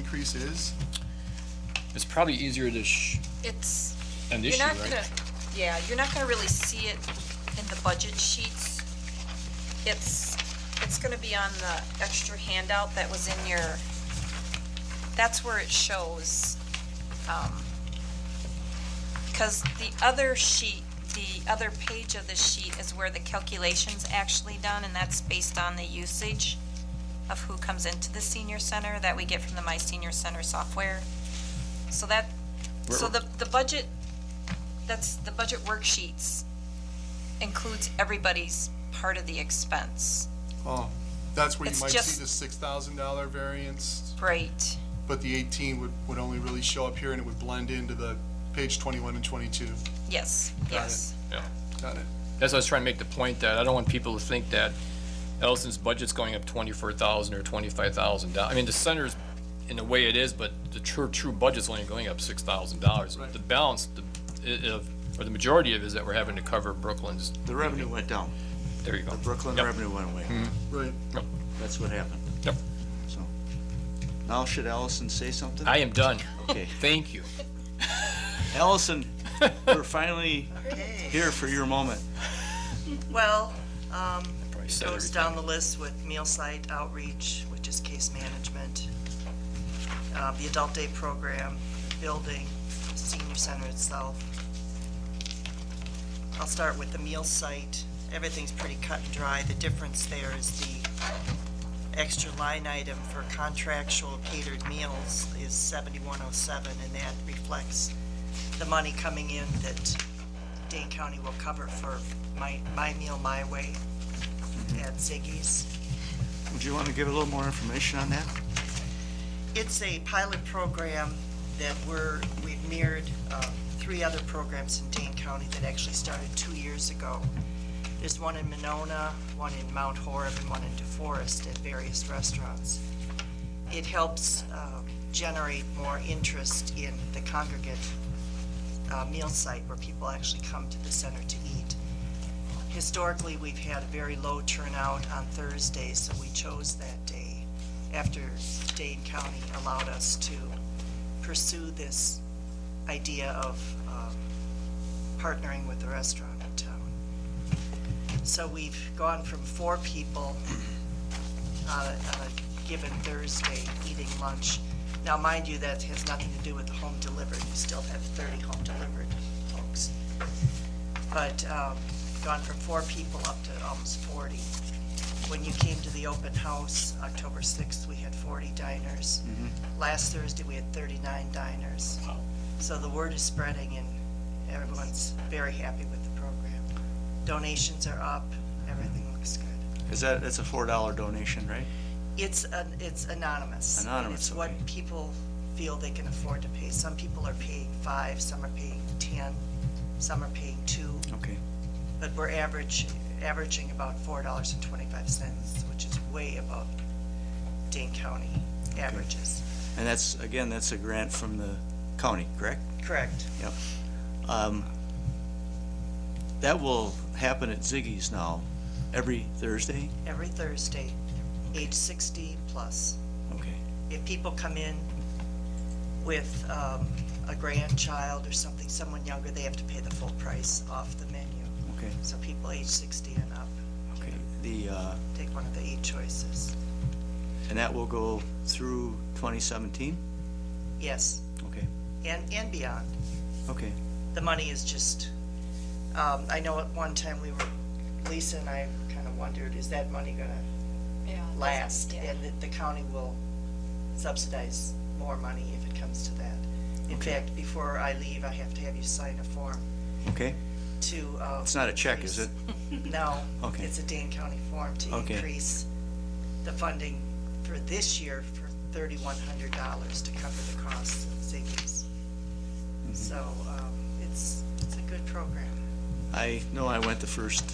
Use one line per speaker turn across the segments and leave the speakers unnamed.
increase is?
It's probably easier to sh-
It's,
an
you're
issue,
not
right?
gonna, yeah, you're not gonna really see it in the budget sheets. It's, it's gonna be on the extra handout that was in your, that's where it shows. Because the other sheet, the other page of the sheet is where the calculation's actually done, and that's based on the usage of who comes into the senior center that we get from the My Senior Center software. So that, so the, the budget, that's, the budget worksheets includes everybody's part of the expense.
Oh, that's where you
It's
might
just-
see the six thousand dollar variance,
Right,
but the eighteen would, would only really show up here and it would blend into the page twenty-one and twenty-two.
yes, yes.
Got it?
That's why I was trying to make the point that I don't want people to think that Ellison's budget's going up twenty-four thousand or twenty-five thousand dollars. I mean, the center's in the way it is, but the true, true budget's only going up six thousand dollars.
Right.
The balance, the, i- of, or the majority of it is that we're having to cover Brooklyn's,
The revenue went down.
there you go.
The Brooklyn
Yep. Mm-hmm.
revenue went away.
Right.
That's what happened.
Yep.
So, now should Allison say something?
I am done.
Okay.
Thank you.
Allison, we're finally here for your moment.
Well, um,
Probably
it
said
goes
everything.
down the list with meal site outreach, which is case management, uh, the adult day program, building, senior center itself. I'll start with the meal site. Everything's pretty cut and dry. The difference there is the extra line item for contractual catered meals is seventy-one oh seven, and that reflects the money coming in that Dane County will cover for my, my meal, my way at Ziggy's.
Would you want to give a little more information on that?
It's a pilot program that we're, we've mirrored um, three other programs in Dane County that actually started two years ago. There's one in Monona, one in Mount Horeb, and one in DeForest at various restaurants. It helps uh, generate more interest in the congregate uh, meal site where people actually come to the center to eat. Historically, we've had a very low turnout on Thursdays, so we chose that day after Dane County allowed us to pursue this idea of um, partnering with the restaurant in town. So we've gone from four people on a on a given Thursday eating lunch. Now, mind you, that has nothing to do with the home delivered. You still have 30 home delivered folks. But um, gone from four people up to almost 40. When you came to the open house, October 6th, we had 40 diners. Last Thursday, we had 39 diners. So the word is spreading, and everyone's very happy with the program. Donations are up, everything looks good.
Is that, that's a four dollar donation, right?
It's, an- it's anonymous. and
Anonymous,
It's what
okay.
people feel they can afford to pay. Some people are paying five, some are paying 10, some are paying two,
Okay.
but we're average, averaging about $4.25, which is way above Dane County averages.
And that's, again, that's a grant from the county, correct?
Correct.
Yep. Um, That will happen at Ziggy's now, every Thursday?
Every Thursday, age 60 plus.
Okay.
if people come in with um, a grandchild or something, someone younger, they have to pay the full price off the menu.
Okay.
So people age 60 and up
Okay. The, uh,
take one of the eight choices.
and that will go through twenty seventeen?
Yes,
Okay,
and, and beyond.
okay.
The money is just, um, I know at one time we were, Lisa and I kind of wondered, is that money going to
Yeah.
last,
Yeah.
and that the county will subsidize more money if it comes to that. In fact, before I leave, I have to have you sign a form
Okay,
to. uh,
it's not a check, is it?
No.
Okay.
It's a Dane County form to
Okay.
increase the funding for this year for thirty-one hundred dollars to cover the costs of Ziggy's.
Mm-hmm.
So, um, it's, it's a good program.
I know I went the first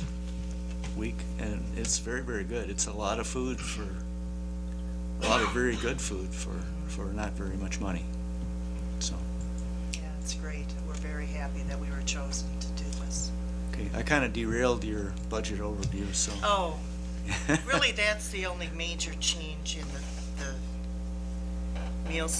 week, and it's very, very good. It's a lot of food for, a lot of very good food for, for not very much money. So,
Yeah, it's great. We're very happy that we were chosen to do this.
okay, I kind of derailed your budget overview, so.
Oh, really, that's the only major change in the, the meal